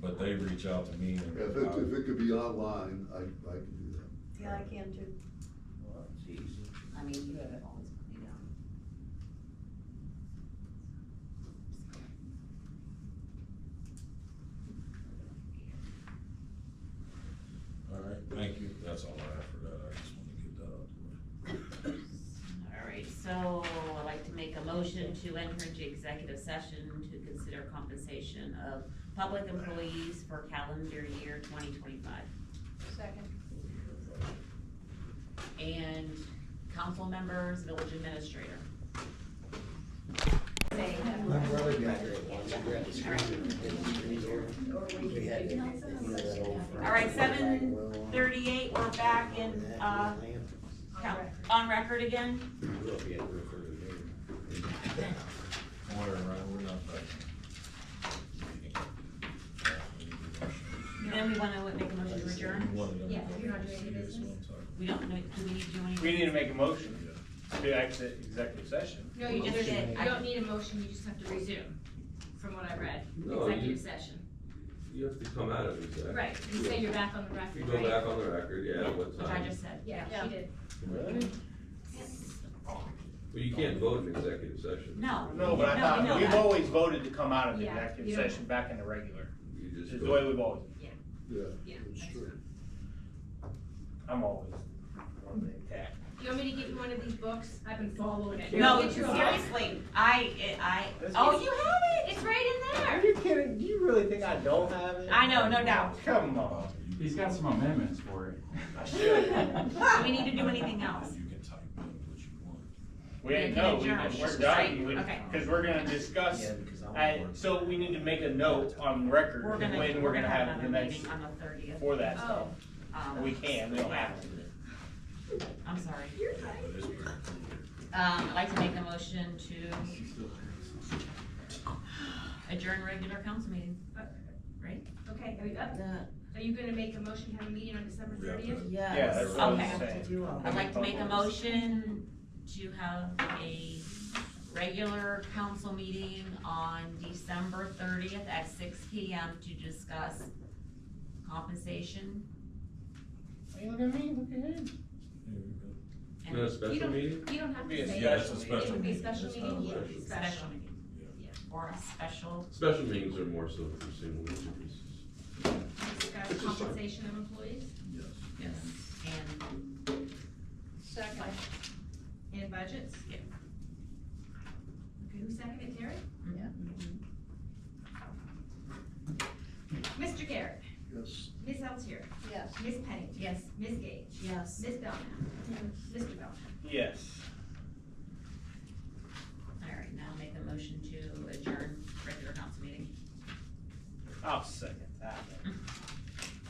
but they reach out to me and. If it, if it could be online, I, I can do that. Yeah, I can too. Well, it's easy. I mean, you can always, you know. All right, thank you, that's all I have for that, I just wanted to get that out the All right, so I'd like to make a motion to enter into executive session to consider compensation of public employees for calendar year twenty twenty-five. Second. And council members, village administrator. Say My that. brother graduated once, he grabbed his screen. We had that- you know, that old firm. All right, 7:38, we're back in, uh, Count- On record again? We'll be able to refer to them. way. Don't worry, Ryan, we're not back. Then we wanna make a motion to adjourn? One of them. Yeah, you're not doing any Serious business? one, sorry. We don't know, do we need to do anything? We need to make a motion to exit executive session. No, you just, Motion you made. don't need a motion, you just have to resume, from what I read, No, you- executive session. You have to come out of exec. Right, you say you're back on the You record, go right? back on the record, yeah, what Which I time? just said. Yeah, she did. Really? Well, you can't vote in executive session. No. No, but I No, thought, no. we've always voted to come out of the Yeah, executive you don't- session back into regular. You This just is the way go. we've always, Yeah, Yeah, it's that's true. I'm always on the attack. You want me to get you one of these books? I've been following it. No, Get you a book. seriously, I, I, That's- oh, you have it? It's right in there. you kidding? Do you really think I don't have it? I know, no doubt. Come on. He's got some amendments for it. I should. Do we need to do anything else? You can type in what you want. We didn't Yeah, know, you we adjourned. didn't- we're done, We- Okay. cause we're gonna discuss, Yeah, because I'm I, bored. so we need to make a note on record We're gonna, when we're gonna have the Um, another next, meeting on the thirtieth. for that stuff. Oh, We can, we don't have to. I'm sorry. But it's pretty Um, I'd like to make a motion to adjourn regular council meeting. okay, are you up? Are you gonna make a motion, to have a meeting on December We have to- thirtieth? Yeah, that's what I was Okay. saying. I'd like to make a motion to have a regular council meeting on December thirtieth at six P M to discuss compensation. Hey, Look at me, look at him. There you go. Is and that a special meeting? You don't have to Yeah, say. Yeah, it's a Special It special would be a meeting. special It's not a meeting, yeah, it would be regular. special. Special meeting, or a special, Special meetings are more so for single injuries. Discuss compensation of employees Yes. yes, and, Second. and budgets. Yeah. Okay, who seconded, Terry? Yeah. Mr. Garrett, Yes. Ms. Eltier, Yes. Ms. Pennington, yes. Ms. Gage, Yes. Ms. Belknap, Mr. Belknap. Yes. All right, now make a motion to adjourn regular council meeting. I'll second that.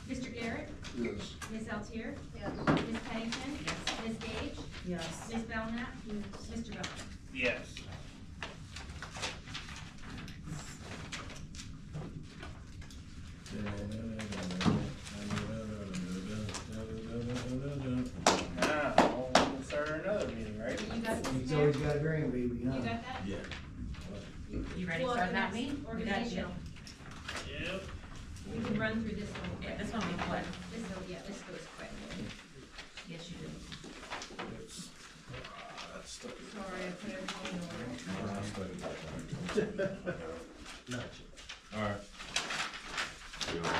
Mr. Garrett, Yes. Ms. Eltier, Yes. Ms. Pennington, Yes. Ms. Gage, Yes. Ms. Belknap, Mr. Belknap. Yes. Now, we'll start another meeting, right? You got this, He's Mayor? always got a green baby, You huh? got that? Yeah. You ready to Well, start that that's meeting? We got you. Organizational. Yep. We can run through this one. Yeah, this one we put, This, will- yeah, this goes quick. yes, you do. Sorry, I put everything in order. All right. You know,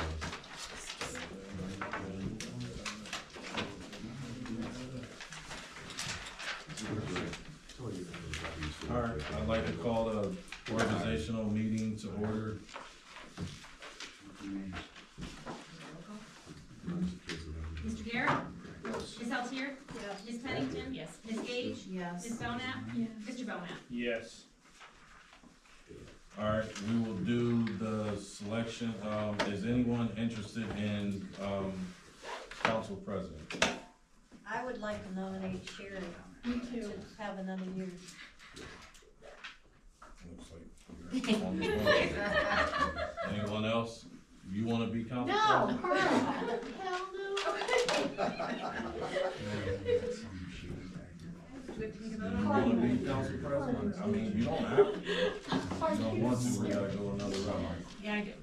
All right, I'd like to call the organizational meeting to order. Mr. Garrett, Yes. Ms. Eltier, Yes. Ms. Pennington, Yes. Ms. Gage, Yes. Ms. Belknap, Mr. Belknap. Yes. All right, we will do the selection. Um, is anyone interested in, um, council president? I would like to nominate Sharon to have another year. Looks like you're only one. Anyone else? You wanna be council president? Hell Do we have to make a vote You on wanna be council president? I mean, you don't have